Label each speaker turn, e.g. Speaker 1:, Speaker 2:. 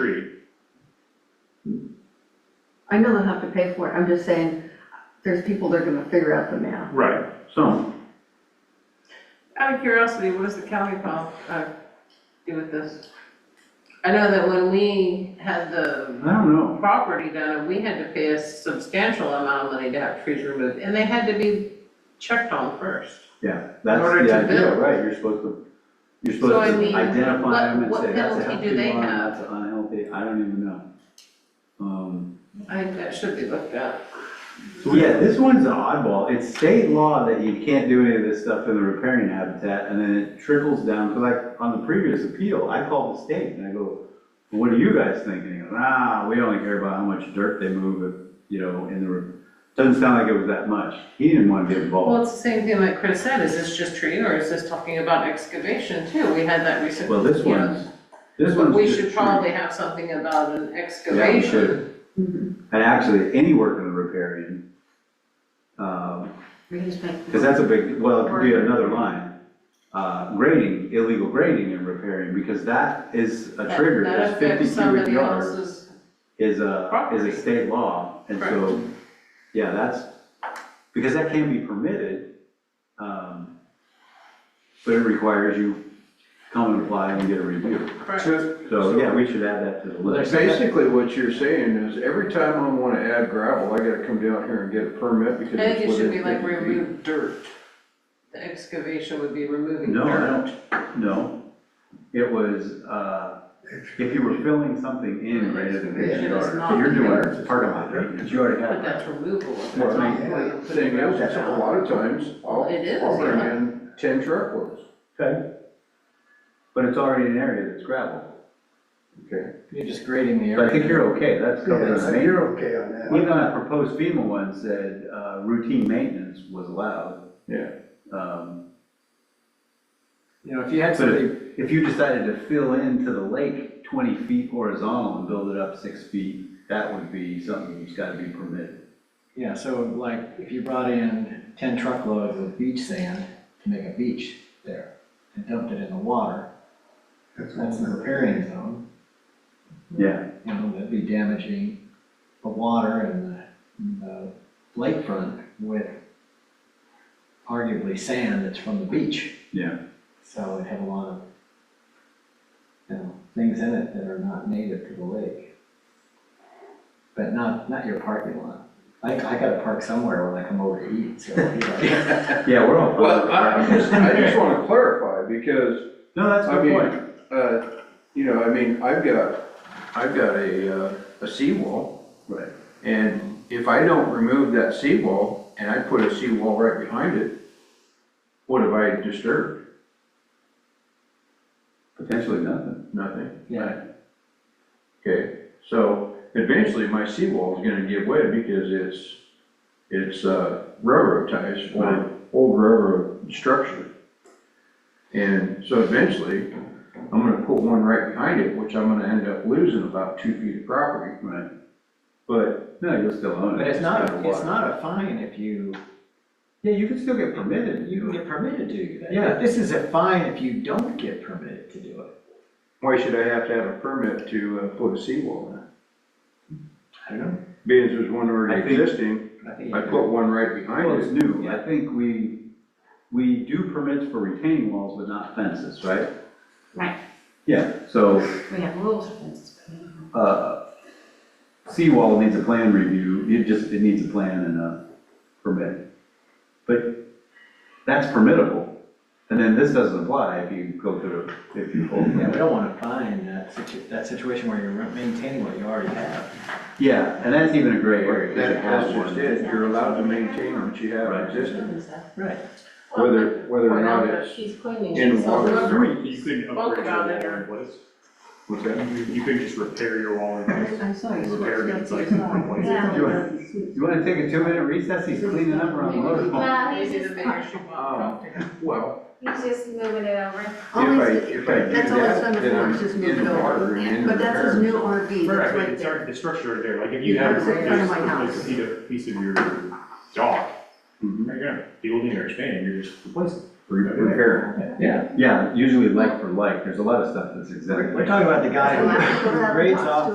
Speaker 1: I know they'll have to pay for it, I'm just saying, there's people that are gonna figure out the math.
Speaker 2: Right, so,
Speaker 3: Out of curiosity, what does the county pump, uh, do with this? I know that when we had the
Speaker 2: I don't know.
Speaker 3: property done, we had to pay a substantial amount of money to have trees removed, and they had to be checked on first.
Speaker 4: Yeah,
Speaker 3: In
Speaker 4: that's
Speaker 3: order
Speaker 4: the
Speaker 3: to
Speaker 4: idea,
Speaker 3: build.
Speaker 4: right, you're supposed to, you're
Speaker 3: So, I
Speaker 4: supposed to
Speaker 3: mean, what-
Speaker 4: identify them and
Speaker 3: what
Speaker 4: say, that's a
Speaker 3: penalty do
Speaker 4: healthy
Speaker 3: they
Speaker 4: one,
Speaker 3: have?
Speaker 4: that's an unhealthy, I don't even know. Um,
Speaker 3: I think that should be looked at.
Speaker 4: so yeah, this one's an oddball, it's state law that you can't do any of this stuff in the riparian habitat, and then it trickles down, because like, on the previous appeal, I called the state, and I go, what do you guys think? And he goes, ah, we only care about how much dirt they move, if, you know, in the, rip-" doesn't sound like it was that much, he didn't want to get involved.
Speaker 3: Well, it's the same thing like Chris said, is this just tree or is this talking about excavation too? We had that recently.
Speaker 4: Well, this one's, this one's.
Speaker 3: We
Speaker 4: just
Speaker 3: should
Speaker 4: true.
Speaker 3: probably have something about an
Speaker 4: Yeah, we
Speaker 3: excavation.
Speaker 4: should. And actually, any work in the riparian, because
Speaker 1: We can just make.
Speaker 4: that's a big, well, it could be another line. Uh, Grading, illegal grading and repairing, because that is a
Speaker 3: That-
Speaker 4: trigger,
Speaker 3: that
Speaker 4: that's
Speaker 3: affects
Speaker 4: fifty cubic
Speaker 3: somebody
Speaker 4: yards
Speaker 3: else's-
Speaker 4: is a, is
Speaker 3: property.
Speaker 4: a state law. And so, yeah, that's, because that can be permitted, um, but it requires you come and apply and get a review.
Speaker 3: Correct.
Speaker 4: So, yeah, we should add that to the list.
Speaker 5: Basically, what you're saying is every time I wanna add gravel, I gotta come down here and get a permit because.
Speaker 3: I think
Speaker 5: it's
Speaker 3: it should be
Speaker 5: within
Speaker 3: like
Speaker 5: 50 feet.
Speaker 3: remove dirt. The excavation would be removing
Speaker 4: No, I
Speaker 3: dirt.
Speaker 4: don't, no. It was, uh, if you were filling something in greater than fifty
Speaker 3: Excavation is
Speaker 4: yards,
Speaker 3: not-
Speaker 4: you're doing parking lot
Speaker 2: But
Speaker 4: maintenance.
Speaker 2: you already
Speaker 3: But
Speaker 2: have that.
Speaker 3: that's removal. That's
Speaker 5: Well,
Speaker 3: not
Speaker 5: the
Speaker 3: really putting
Speaker 5: Thing
Speaker 3: dirt
Speaker 5: is, it's a
Speaker 3: down.
Speaker 5: lot of times, I'll,
Speaker 3: It is,
Speaker 5: I'll bring
Speaker 3: yeah.
Speaker 5: in ten truckloads,
Speaker 4: Okay. But it's already an area that's gravel.
Speaker 5: okay?
Speaker 6: You're just grading the
Speaker 4: So I think
Speaker 6: area.
Speaker 4: you're okay, that's covered
Speaker 2: Yeah,
Speaker 4: under
Speaker 2: so
Speaker 4: maintenance.
Speaker 2: you're okay on that.
Speaker 4: Even that proposed FEMA one said, uh, routine maintenance was allowed.
Speaker 5: Yeah.
Speaker 4: Um,
Speaker 6: You know, if you had
Speaker 4: But
Speaker 6: something
Speaker 4: if, if you decided to fill into the lake twenty feet horizontal and build it up six feet, that would be something that's gotta be permitted.
Speaker 6: Yeah, so like, if you brought in ten truckloads of beach sand to make a beach there and dumped it in the water,
Speaker 2: That's what's
Speaker 6: that's in the
Speaker 2: not-
Speaker 6: riparian zone,
Speaker 4: Yeah.
Speaker 6: you know, that'd be damaging the water and the- and the lakefront with arguably sand that's from the beach.
Speaker 4: Yeah.
Speaker 6: So it had a lot of, you know, things in it that are not native to the lake. But not, not your parking lot. I, I gotta park somewhere when I come over to eat, so. you know.
Speaker 4: Yeah, we're all.
Speaker 5: Well, I, I'm just, I just wanna clarify because,
Speaker 4: No, that's a
Speaker 5: I
Speaker 4: good
Speaker 5: mean,
Speaker 4: point.
Speaker 5: uh, you know, I mean, I've got, I've got a, uh, a seawall.
Speaker 4: Right.
Speaker 5: And if I don't remove that seawall and I put a seawall right behind it, what have I disturbed?
Speaker 4: Potentially nothing.
Speaker 5: Nothing.
Speaker 6: Yeah,
Speaker 5: Okay, so eventually my seawall is gonna give way because it's, it's uh, railroad ties
Speaker 4: Right.
Speaker 5: or old railroad structure. And so eventually, I'm gonna put one right behind it, which I'm gonna end up losing about two feet of property.
Speaker 4: Right.
Speaker 5: But
Speaker 4: No, you'll still own it.
Speaker 6: but it's not,
Speaker 4: gotta
Speaker 6: it's
Speaker 4: water.
Speaker 6: not a fine if you,
Speaker 4: Yeah, you can still get permitted,
Speaker 6: you can
Speaker 4: you,
Speaker 6: get permitted to do that.
Speaker 4: Yeah.
Speaker 6: This is a fine if you don't get permitted to do it.
Speaker 5: why should I have to have a permit to uh, put a seawall in?
Speaker 6: I don't know.
Speaker 5: Being as there's one
Speaker 4: I
Speaker 5: already
Speaker 4: think-
Speaker 5: existing,
Speaker 6: I think you
Speaker 5: I
Speaker 6: do.
Speaker 5: put one right
Speaker 4: well,
Speaker 5: behind
Speaker 4: it's
Speaker 5: it.
Speaker 4: new. I think we, we do permits for retaining walls, but not fences, right?
Speaker 1: Right.
Speaker 4: Yeah, so,
Speaker 1: We have rules for this.
Speaker 4: uh, seawall needs a plan review, it just, it needs a plan and a permit. But that's permittable, and then this doesn't apply if you go through, if you hold.
Speaker 6: Yeah, we don't wanna find that situ, that situation where you're maintaining what you already have.
Speaker 4: Yeah, and that's even a gray area. 'cause it
Speaker 5: That,
Speaker 4: has
Speaker 5: that's just
Speaker 4: one.
Speaker 5: it, you're allowed to maintain what you have
Speaker 4: Right.
Speaker 5: existing,
Speaker 6: Right.
Speaker 5: whether, whether or
Speaker 3: Point out
Speaker 5: not
Speaker 3: that
Speaker 5: it's.
Speaker 3: She's cleaning
Speaker 5: in
Speaker 3: herself.
Speaker 5: water.
Speaker 3: Whoever-
Speaker 7: You couldn't upgrade
Speaker 3: Spoke
Speaker 7: your
Speaker 3: about
Speaker 7: wall
Speaker 3: it, or-
Speaker 7: in place.
Speaker 5: What's that?
Speaker 7: You you couldn't just repair your wall in place.
Speaker 1: I saw you.
Speaker 7: Repair it, it's like replace it.
Speaker 4: You wanna- You wanna take a two-minute recess? He's cleaning up around the
Speaker 3: Maybe-
Speaker 4: motor.
Speaker 8: Well, he's
Speaker 3: Maybe the
Speaker 8: just-
Speaker 3: mayor should want to talk to her.
Speaker 5: Well,
Speaker 8: He's just moving it over.
Speaker 5: if
Speaker 1: Always-
Speaker 5: I, if I do
Speaker 1: that's all it's
Speaker 5: that,
Speaker 1: done
Speaker 5: then
Speaker 1: before,
Speaker 5: I'm
Speaker 1: it's just moved
Speaker 5: in the
Speaker 1: over.
Speaker 5: water and in the
Speaker 1: But that's his
Speaker 5: repair.
Speaker 1: new RV,
Speaker 7: Right,
Speaker 1: that's
Speaker 7: but
Speaker 1: right
Speaker 7: it's
Speaker 1: there.
Speaker 7: already, the structure right there, like if
Speaker 1: You
Speaker 7: you have
Speaker 1: have it right in front of
Speaker 7: replaced,
Speaker 1: my
Speaker 7: replaced
Speaker 1: house. Mm-hmm.
Speaker 7: a piece of, piece of your dock,
Speaker 5: Mhm.
Speaker 7: you're gonna building or expanding, you're just replacing.
Speaker 5: Re- Repair.
Speaker 6: Yeah,
Speaker 4: Yeah, usually like for like, there's a lot of stuff that's exactly.
Speaker 6: we're, we're talking about the guy
Speaker 1: There's a lot of
Speaker 6: who
Speaker 1: people that have
Speaker 6: grades
Speaker 1: lots
Speaker 6: off